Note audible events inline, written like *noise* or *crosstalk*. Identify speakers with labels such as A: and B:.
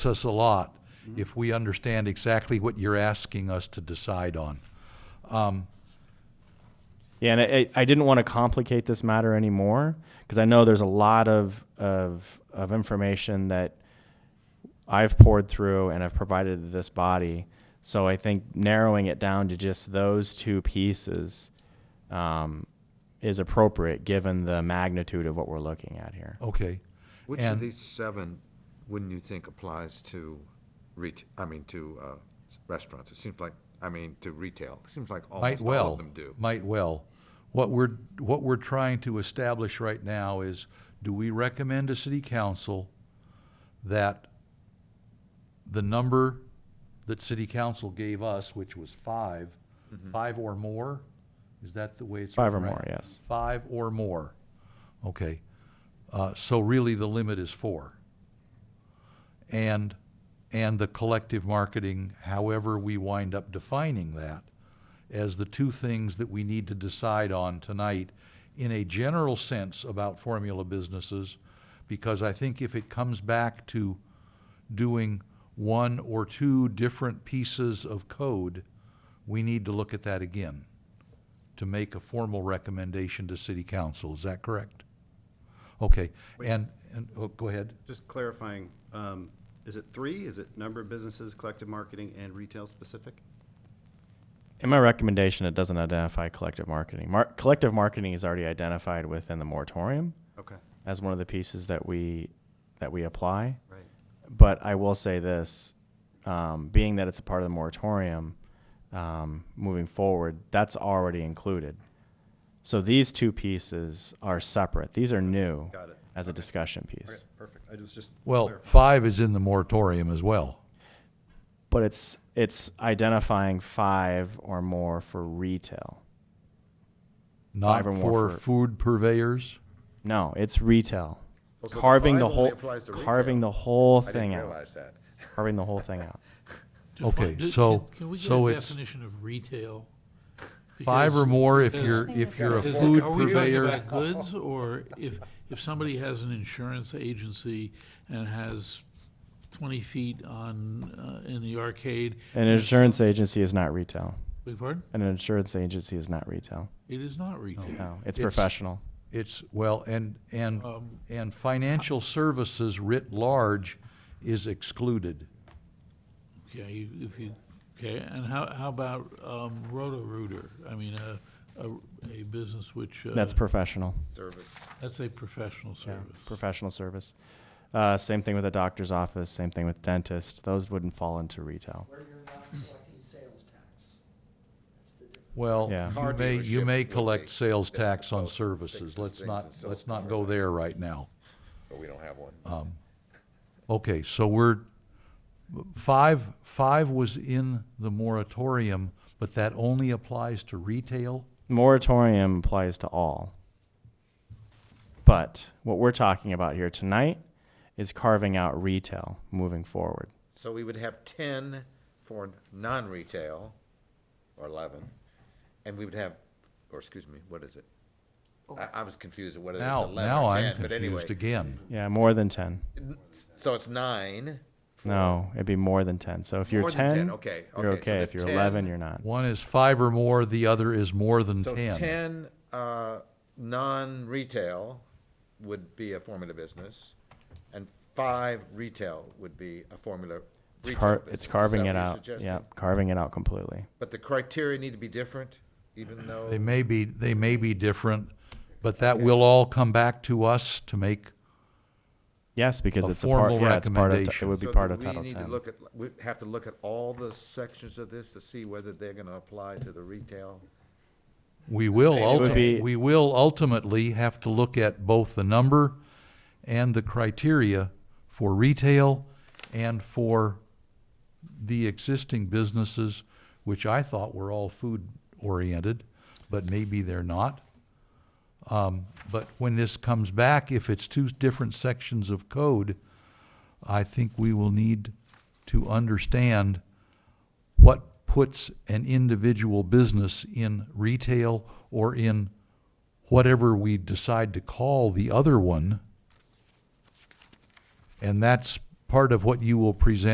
A: us a lot if we understand exactly what you're asking us to decide on.
B: Yeah, and I, I didn't want to complicate this matter anymore because I know there's a lot of, of, of information that I've poured through and I've provided to this body. So I think narrowing it down to just those two pieces um, is appropriate given the magnitude of what we're looking at here.
A: Okay.
C: Which
A: And-
C: of these seven wouldn't you think applies to ret, I mean, to uh, restaurants? It seems like, I mean, to retail. It seems like
A: Might
C: almost all
A: well.
C: of them do.
A: Might well. What we're, what we're trying to establish right now is, do we recommend to city council that the number that city council gave us, which was five,
C: Mm-hmm.
A: five or more? Is that the way it's?
B: Five or
A: written,
B: more,
A: right?
B: yes.
A: Five or more. Okay. Uh, so really the limit is four. And, and the collective marketing, however we wind up defining that, as the two things that we need to decide on tonight in a general sense about formula businesses, because I think if it comes back to doing one or two different pieces of code, we need to look at that again to make a formal recommendation to city council. Is that correct? Okay, and, and, oh, go ahead.
D: Just clarifying, um, is it three? Is it number of businesses, collective marketing, and retail specific?
B: In my recommendation, it doesn't identify collective marketing. Mar- collective marketing is already identified within the moratorium
D: Okay,
B: as one of the pieces that we, that we apply.
D: right.
B: But I will say this, um, being that it's a part of the moratorium, um, moving forward, that's already included. So these two pieces are separate. These are new
D: Got it.
B: as a discussion piece.
D: Okay, perfect. I was just.
A: Well,
D: clarifying.
A: five is in the moratorium as well.
B: But it's it's identifying five or more for retail.
A: Not
B: Five or more
A: for
B: for-
A: food purveyors?
B: No, it's retail.
C: Oh, so the
B: carving the
C: five only
B: whole
C: applies to
B: carving
C: retail.
B: the whole
C: I didn't
B: thing out.
C: realize that.
B: Carving the whole thing
C: *laughs*
B: out.
A: Okay,
E: Define- do-
A: so-
E: can- Can we get
A: so
E: a
A: it's-
E: definition of retail?
A: Five or
E: Because-
A: more if
E: because-
A: you're, if you're a
E: because
A: food
E: Are we talking
A: purveyor.
E: about goods, or if, if somebody has an insurance agency and has twenty feet on, uh, in the arcade?
B: An insurance agency is not retail.
E: Beg your pardon?
B: An insurance agency is not retail.
E: It is not retail.
B: No,
A: It's-
B: it's professional.
A: It's, well, and, and,
E: Um,
A: and financial services writ large is excluded.
E: Okay, you- if you, okay, and how, how about, um, Roto-Rooter? I mean, a, a, a business which, uh,
B: That's professional.
C: Service.
E: that's a professional service.
B: professional service. Uh, same thing with a doctor's office. Same thing with dentist. Those wouldn't fall into retail.
F: where you're not collecting sales tax. That's the difference.
A: Well,
B: Yeah.
A: you
C: Car
A: may, you may
C: dealership would
A: collect
C: be-
A: sales
C: they
A: tax on
C: both fix
A: services.
C: the
A: Let's
C: things
A: not,
C: and sell
A: let's not
C: cars.
A: go there right now.
C: But we don't have one.
A: Um, Okay, so we're, five, five was in the moratorium, but that only applies to retail?
B: Moratorium applies to all. But what we're talking about here tonight is carving out retail moving forward.
C: So we would have ten for non-retail, or eleven, and we would have, or excuse me, what is it? I, I was confused at whether it was
A: Now,
C: eleven
A: now
C: or
A: I'm
C: ten, but anyway.
A: confused again.
B: Yeah, more than 10.
C: So it's nine.
B: No, it'd be more than 10. So if you're
C: More
B: 10,
C: than 10, okay,
B: you're
C: okay, so
B: okay.
C: the
B: if you're 11,
C: 10
B: you're not.
A: One is five or more, the other is more than
C: So
A: ten.
C: ten, uh, non-retail would be a formula business, and five retail would be a formula
B: It's,
C: retail
B: car-
C: business.
B: it's
C: Is that
B: carving
C: what
B: it
C: you're
B: out.
C: suggesting?
B: Yeah, carving it out completely.
C: But the criteria need to be different, even
A: They
C: though,
A: may be, they may be different, but that will all come back to us to make,
B: Yes, because
A: A
B: it's a part.
A: formal
B: Yeah, it's part of. It
A: recommendation.
B: would be
C: so
B: part
C: do
B: of
C: we
B: Title
C: need to
B: Ten.
C: look at, we have to look at all the sections of this to see whether they're gonna apply to the retail?
A: we will
C: It would
A: ultimately,
B: be-
A: we will ultimately have to look at both the number and the criteria for retail and for the existing businesses, which I thought were all food-oriented, but maybe they're not. Um, but when this comes back, if it's two different sections of code, I think we will need to understand what puts an individual business in retail or in whatever we decide to call the other one. And that's part of what you will present